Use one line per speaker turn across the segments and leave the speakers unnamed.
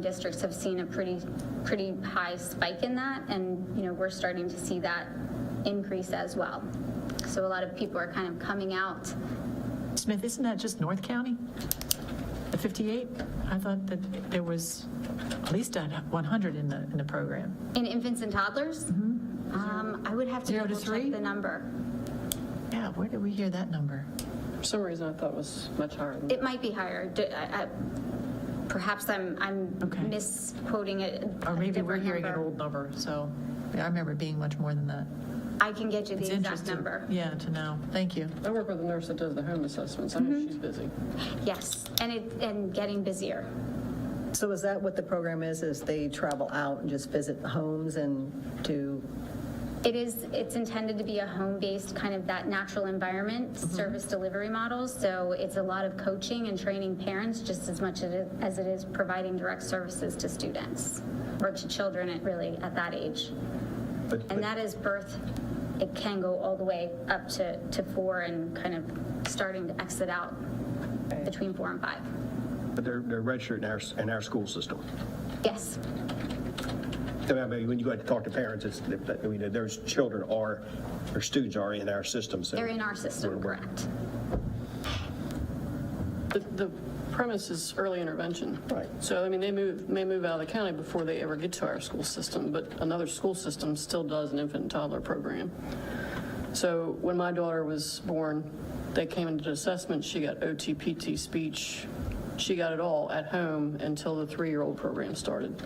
districts have seen a pretty, pretty high spike in that, and, you know, we're starting to see that increase as well. So a lot of people are kind of coming out.
Smith, isn't that just North County? The 58? I thought that there was at least a 100 in the, in the program.
In infants and toddlers, um, I would have to
Mm-hmm. Zero to
double check
three?
the number.
Yeah, where did we hear that number?
For some reason, I thought it was much higher than
It might be higher. Do- I- I- Perhaps I'm, I'm
Okay.
misquoting it.
Or maybe we're hearing an old number, so yeah, I remember it being much more than that.
I can get you
It's
the exact
interesting.
number.
Yeah, to know. Thank you.
I work with a nurse that does the home assessments. I know she's busy.
Yes, and it, and getting busier.
So is that what the program is, is they travel out and just visit the homes and do,
It is, it's intended to be a home-based, kind of that natural environment,
Mm-hmm.
service delivery model. So it's a lot of coaching and training parents just as much it- as it is providing direct services to students or to children at really at that age.
But-
And
but-
that is birth. It can go all the way up to, to four and kind of starting to exit out between four and five.
But they're, they're registered in our, in our school system.
Yes,
I mean, when you go out to talk to parents, it's, I mean, those children are, or students are in our system, so.
they're in our system,
We're- we're-
correct.
The- The premise is early intervention.
Right.
So, I mean, they move, may move out of the county before they ever get to our school system, but another school system still does an infant and toddler program. So when my daughter was born, they came into assessment, she got OT, PT, speech, she got it all at home until the three-year-old program started.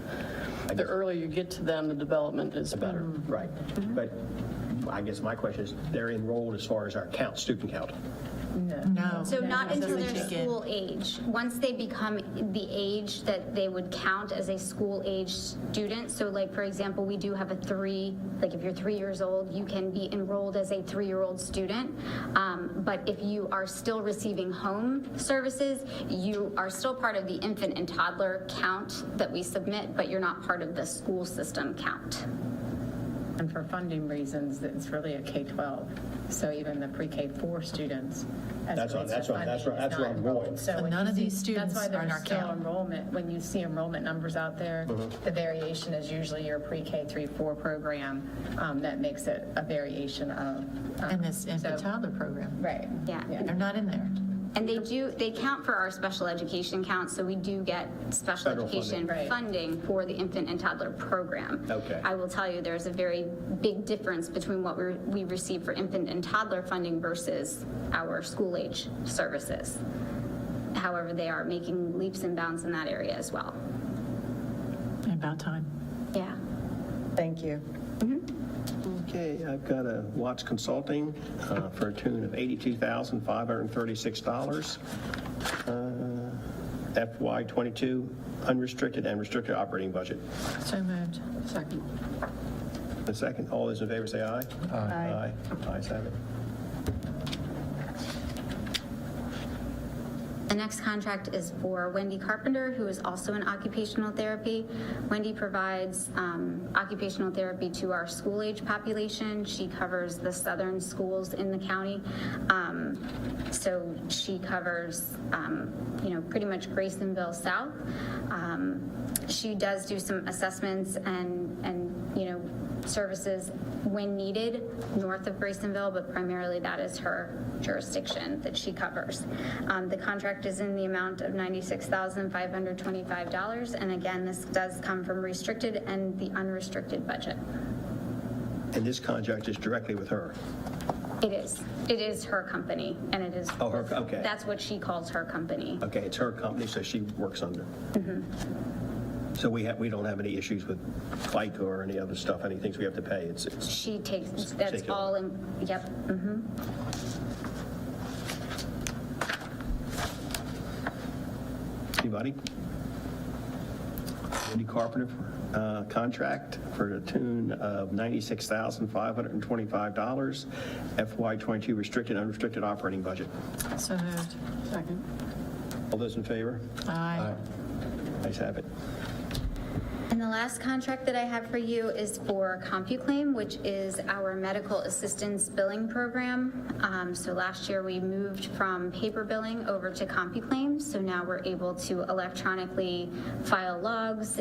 The earlier you get to them, the development is better.
Right. But I guess my question is, they're enrolled as far as our count, student count.
No.
So not until
they
they're
check in.
school age. Once they become the age that they would count as a school age student, so like, for example, we do have a three, like if you're three years old, you can be enrolled as a three-year-old student. Um, But if you are still receiving home services, you are still part of the infant and toddler count that we submit, but you're not part of the school system count.
And for funding reasons, it's really a K-12. So even the pre-K-4 students,
That's
as
what- that's
it relates to
what-
funding,
that's what-
is
that's where
not
I'm going.
enrolled. So
But
when
none
you
of
see-
these students
That's why
are in our
there's still
count.
enrollment, when you see enrollment numbers out there,
Mm-hmm.
the variation is usually your pre-K 3, 4 program um, that makes it a variation of. um,
And this infant
so-
toddler program.
Right.
Yeah.
They're not in there.
And they do, they count for our special education count, so we do get special
Federal funding.
education
Right.
funding for the infant and toddler program.
Okay.
I will tell you, there's a very big difference between what we we receive for infant and toddler funding versus our school-age services. However, they are making leaps and bounds in that area as well.
About time.
Yeah.
thank you.
Okay, I've got a Watts Consulting uh, for a tune of $82,536. Uh, FY '22 unrestricted and restricted operating budget.
So moved.
Second.
The second, all those in favor say aye. Aye. Aye, ayes have it.
The next contract is for Wendy Carpenter, who is also in occupational therapy. Wendy provides um, occupational therapy to our school-age population. She covers the southern schools in the county. Um, So she covers, um, you know, pretty much Graysonville South. Um, She does do some assessments and, and, you know, services when needed north of Graysonville, but primarily that is her jurisdiction that she covers. Um, The contract is in the amount of $96,525. And again, this does come from restricted and the unrestricted budget.
And this contract is directly with her.
It is, it is her company and it is.
Oh, her- okay.
That's what she calls her company.
Okay, it's her company, so she works under. So we have, we don't have any issues with FICA or any other stuff, any things we have to pay. It's, it's,
She takes, that's
Take it
all, in yep, mhm.
anybody? Wendy Carpenter uh, contract for the tune of $96,525, FY22 restricted, unrestricted operating budget.
So moved.
Second.
All those in favor?
Aye.
Ayes have it.
And the last contract that I have for you is for CompuClaim, which is our medical assistance billing program. Um, So last year, we moved from paper billing over to CompuClaim, so now we're able to electronically file logs